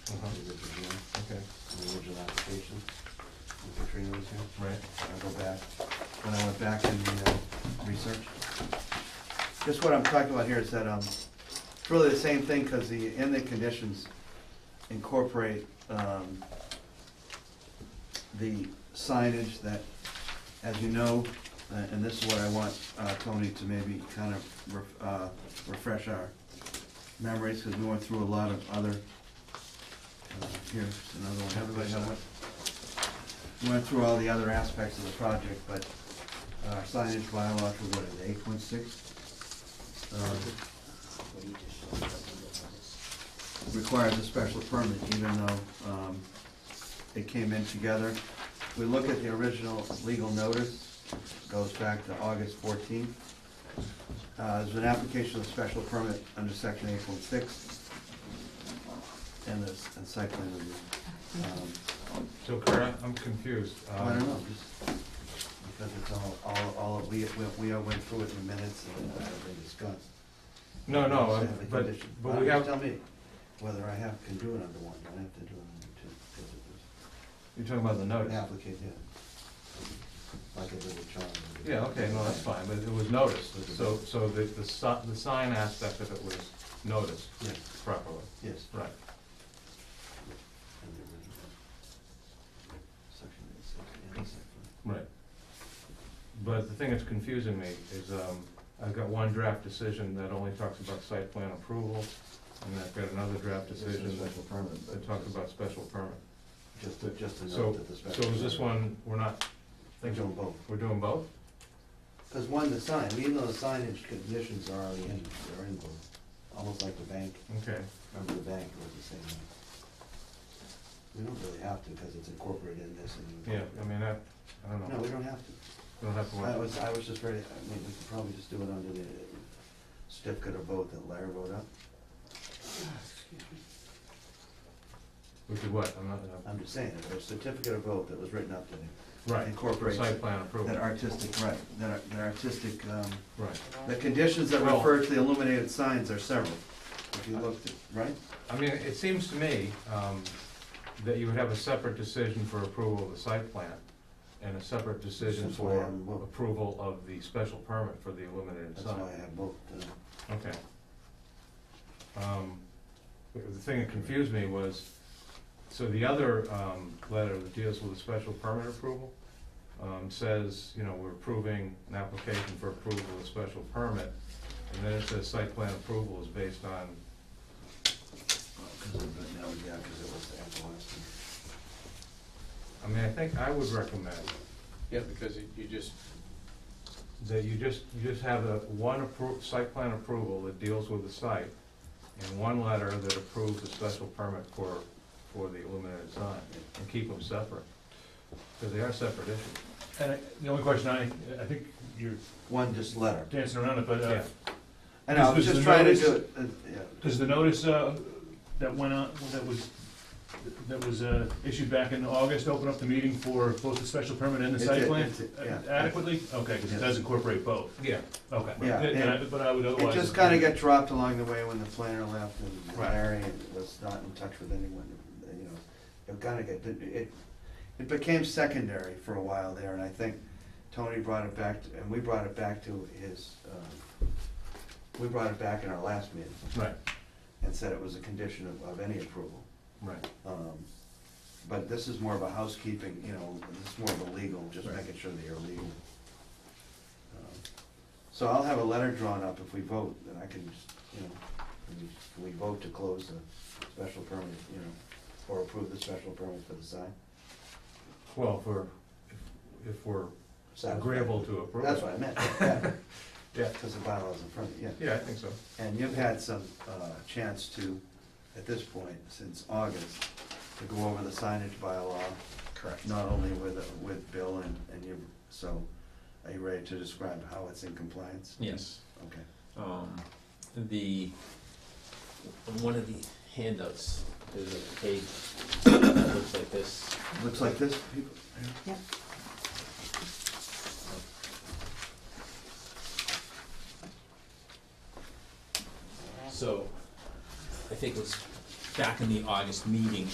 Uh-huh. the original one, Okay, the original application. when Katrina was here. right. I go back, when I went back and uh, researched. Just what I'm talking about here is that, um, it's really the same thing, because the, in the conditions incorporate, um, the signage that, as you know, uh, and this is what I want, uh, Tony to maybe kind of, ref- uh, refresh our memories, because we went through a lot of other, uh, here's another one, everybody have one? We went through all the other aspects of the project, but our signage bylaw for what is eight point six? Um, Requires a special permit even though, um, it came in together. We look at the original legal notice, goes back to August fourteenth. Uh, there's an application of special permit under section eight point six. And there's, and site plan review. Um, So Kara, I'm confused. Oh, I don't Um, know, just because it's all, all, all, of- we, we, we all went through it in minutes and uh, they discussed. No, no, Understand uh, the but, condition. but we Uh, have, Tell me whether I have, can do it under one, I have to do it under two, because it was you're talking about the an notice. applicant, yeah. Like a little child. Yeah, okay, no, that's fine, but it was noticed, so, so the, the si- the sign aspect of it was noticed Yeah, properly. yes. Right, in the original. Section eight, section, yeah, section. right. But the thing that's confusing me is, um, I've got one draft decision that only talks about site plan approval, and I've got another draft decision that, Special permit, but that talks about special permit. Just, a- just a So- note that the special. So is this permit- one, we're not, They're doing both. we're doing both? Because one, the sign, even though the signage conditions are already in, they're in, blue, almost like the bank, Okay, remember the bank was the same. We don't really have to, because it's incorporated in this and. you yeah, I mean, I, I don't No, know, we don't have to. we don't have to I worry. was, I was just ready, I mean, we could probably just do it under the certificate of vote that Larry wrote up. We could what, I'm not, I'm- I'm just saying, it was a certificate of vote that was written up that uh, right, for incorporates site plan that approval, artistic, right, that ar- that artistic, um, right. the conditions that Well- refer to the illuminated signs are several. If you looked, at- right? I mean, it seems to me um, that you would have a separate decision for approval of the site plan and a separate decision That's why for I'm- approval of the special permit for the illuminated That's why I sign. have both, uh, Okay. Um, The the thing that confused me was, so the other um, letter that deals with the special permit approval um, says, you know, we're approving an application for approval of a special permit, and then it says site plan approval is based on, Because of, but now, yeah, because it was at the last. one. I mean, I think I would recommend Yeah, because you you just, that you just, you just have a, one appro, site plan approval that deals with the site, and one letter that approves the special permit for, for the illuminated sign, and keep them separate, because they are separate issues. And I- the only question I, I think you're One just letter. dancing around it, but, uh, And I was Does- does just the trying to notice- do it, uh, yeah. does the notice, uh, that went out, that was, that was, uh, issued back in August, open up the meeting for both the special permit and the It site did, plan? it did, yeah. Adequately? Okay, because it does incorporate both, Yeah, okay. Yeah, Then- then I- But I would It otherwise. just kind of got dropped along the way when the planner left and Right. Larry was not in touch with anyone, uh, you know. It kind of got, it, it became secondary for a while there, and I think Tony brought it back, to- and we brought it back to his, um, we brought it back in our last meeting right, and said it was a condition of, of any approval. right. Um, But this is more of a housekeeping, you know, this is more of a legal, just making sure that you're legal. Um, So I'll have a letter drawn up if we vote, and I can, just, you know, we- we vote to close the special permit, you know, or approve the special permit for the sign. Well, if we're, if- if we're Satisfied. agreeable to approve. That's what I meant, yeah, Yeah, because the bylaw's in front of you, yeah. yeah, I think so. And you've had some uh, chance to, at this point, since August, to go over the signage bylaw. Correct. Not only with, with Bill and, and you, so are you ready to describe how it's in compliance? yes, Okay. um, the, on one of the handouts, there's a page that looks like this. Looks like this, people? So, I think what's back in the August meeting